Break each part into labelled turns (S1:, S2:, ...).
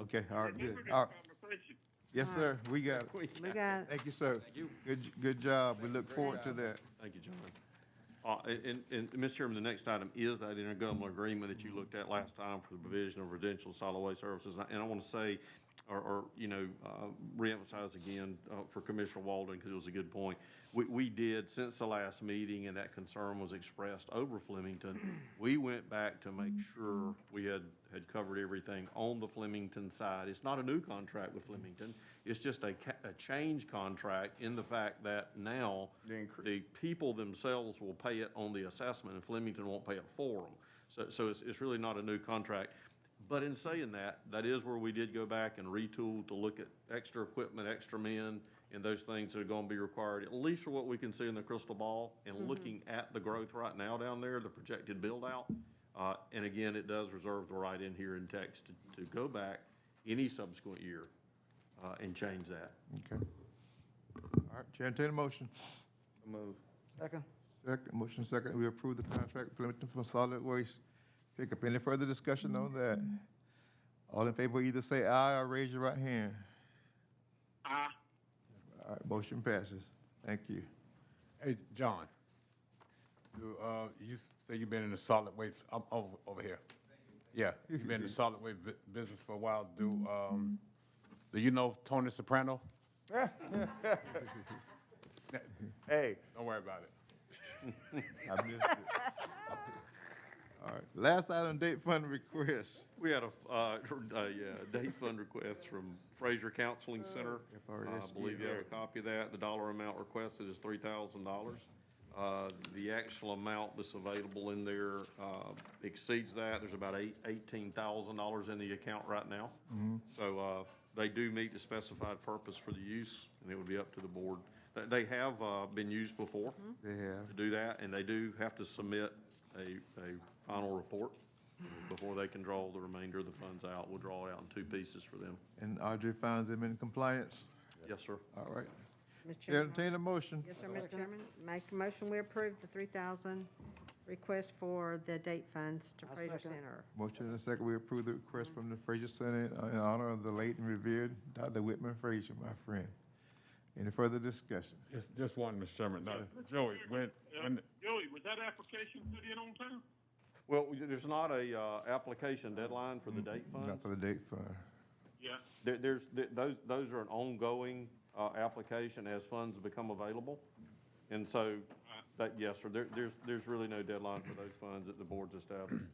S1: Okay, all right, good,
S2: Remember this
S1: all right.
S2: conversation.
S1: Yes, sir, we got it.
S3: We got it.
S1: Thank you, sir. Good, j- good job. We look forward to that.
S4: Thank you, John. Uh, and, and, and, Mr. Chairman, the next item is that intergovernmental agreement that you looked at last time for the provision of residential solid waste services. And I- And I want to say, or, or, you know, uh, reemphasize again, uh, for Commissioner Walden, because it was a good point. We, we did, since the last meeting, and that concern was expressed over Flemington, we went back to make sure we had, had covered everything on the Flemington side. It's not a new contract with Flemington. It's just a ca- a change contract in the fact that now the people themselves will pay it on the assessment, and Flemington won't pay it for them. So, so it's, it's really not a new contract. But in saying that, that is where we did go back and retool to look at extra equipment, extra men, and those things that are gonna be required, at least for what we can see in the crystal ball, and looking at the growth right now down there, the projected build-out. Uh, and again, it does reserve the right in here in text to, to go back any subsequent year, uh, and change that.
S1: Okay. All right, Chair, entertain a motion.
S5: Move.
S3: Second.
S1: Second, motion second, we approve the contract with Flemington for solid waste pickup. Any further discussion on that? All in favor, either say aye or raise your right hand.
S2: Aye.
S1: All right, motion passes. Thank you.
S6: Hey, John, you, uh, you s- say you've been in the solid waste, I'm over, over here. Yeah, you've been in the solid waste bu- business for a while. Do, um, do you know Tony Soprano?
S5: Hey,
S6: Don't worry about it.
S1: I missed it. All right, last item, date fund request.
S4: We had a, uh, a, uh, day fund request from Fraser Counseling Center.
S1: If I were to
S4: Uh, I
S1: ask you
S4: believe you have a
S1: that.
S4: copy of that. The dollar amount requested is three thousand dollars. Uh, the actual amount that's available in there, uh, exceeds that. There's about eight, eighteen thousand dollars in the account right now.
S1: Mm-hmm.
S4: So, uh, they do meet the specified purpose for the use, and it would be up to the board. They, they have, uh, been used before
S1: They have.
S4: to do that, and they do have to submit a, a final report before they can draw the remainder of the funds out. We'll draw it out in two pieces for them.
S1: And Audrey finds them in compliance.
S4: Yes, sir.
S1: All right.
S3: Mr. Chairman.
S1: Entertain a motion.
S3: Yes, sir, Mr. Chairman. Make a motion, we approve the three thousand request for the date funds to Fraser Center.
S1: Motion and a second, we approve the request from the Fraser Senate in honor of the late and revered Dr. Whitman Fraser, my friend. Any further discussion?
S6: Just, just one, Mr. Chairman. Now, Joey, when,
S2: Uh,
S6: when,
S2: Joey, was that application put in on time?
S4: Well, there's not a, uh, application deadline for the date
S1: Not
S4: funds.
S1: for the date fund.
S2: Yeah.
S4: There, there's, th- those, those are an ongoing, uh, application as funds become available. And so, that, yes, sir, there, there's, there's really no deadline for those funds that the board's established.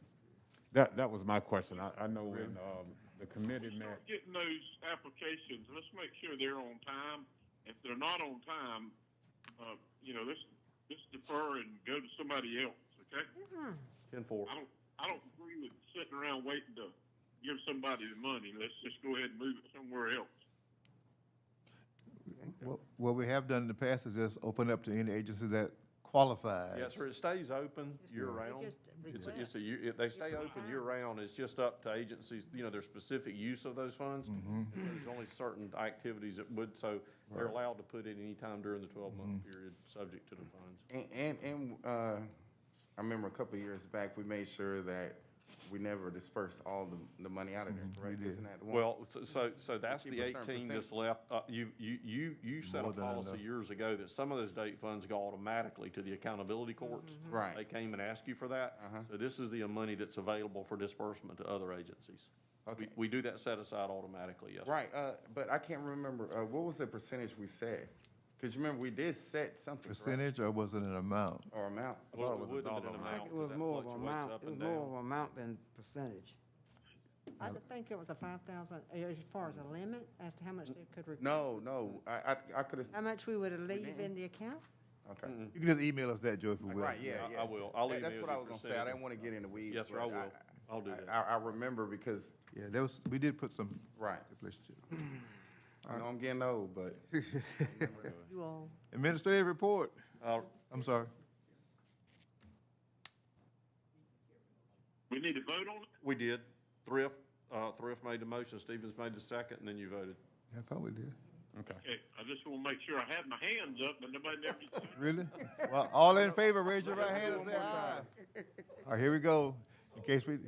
S6: that, that was my question. I, I know when, um, the committee met,
S2: Start getting those applications, let's make sure they're on time. If they're not on time, uh, you know, let's, let's defer and go to somebody else, okay?
S4: Ten-four.
S2: I don't, I don't agree with sitting around waiting to give somebody the money. Let's just go ahead and move it somewhere else.
S1: What- What we have done in the past is just open up to any agency that qualifies.
S4: Yes, sir, it stays open year-round.
S3: just
S4: It's, a- it's
S3: request.
S4: a, year- it- they stay open year-round, it's just up to agencies, you know, their specific use of those funds. And so There's only certain activities that would, so they're allowed to put in any time during the twelve-month period, subject to the funds.
S5: and, and, and, uh, I remember a couple of years back, we made sure that we never dispersed all the, the money out of there, correct? Isn't that the
S4: Mm-hmm.
S5: one?
S4: Well, so- so, so that's
S5: keep
S4: the
S5: a certain
S4: eighteen that's left, uh, you, you, you, you set a
S1: More than
S4: policy
S1: enough.
S4: years ago that some of those date funds go automatically to the accountability
S7: Mm-hmm.
S4: courts.
S5: Right.
S4: They came and asked you for that. So this is the money that's available for disbursement to other agencies. We,
S5: Okay.
S4: we do that set aside automatically, yes. sir.
S5: Right, uh, but I can't remember, uh, what was the percentage we set? Cause you remember, we did set something, correct?
S1: Percentage or was it an amount?
S5: Or amount?
S4: Well,
S6: it
S4: it
S6: was a
S4: would have been
S6: dollar
S4: an
S6: amount.
S4: amount,
S7: It was
S4: 'cause that
S7: more of
S4: fluctuates
S7: amount,
S4: up
S7: it was
S4: and
S7: more
S4: down.
S7: of amount than percentage.
S3: I would think it was a five thousand, as far as a limit, as to how much they could request.
S5: No, no, I, I, I could've,
S3: How much we would leave in the account?
S5: okay.
S1: You can just email us that, Joe, if you will.
S5: Right, yeah,
S4: I- I
S5: yeah.
S4: will. I'll
S5: That-
S4: email
S5: That's what I
S4: you
S5: was gonna say, I
S4: percentage.
S5: didn't wanna get in the weeds.
S4: Yes, sir,
S5: but
S4: I will. I'll do
S5: I-
S4: that.
S5: I, I remember because,
S1: Yeah, that was, we did put some.
S5: Right. I know I'm getting old, but.
S3: You all,
S1: Administrative report.
S4: Uh,
S1: I'm sorry.
S2: We need to vote on it?
S4: We did. Thrift, uh, Thrift made the motion, Stevens made the second, and then you voted.
S1: I thought we did.
S6: okay.
S2: Okay, I just wanna make sure I had my hands up, but nobody never did.
S1: Really? Well, all in favor, raise your right hand and say aye. All right, here we go. In case we,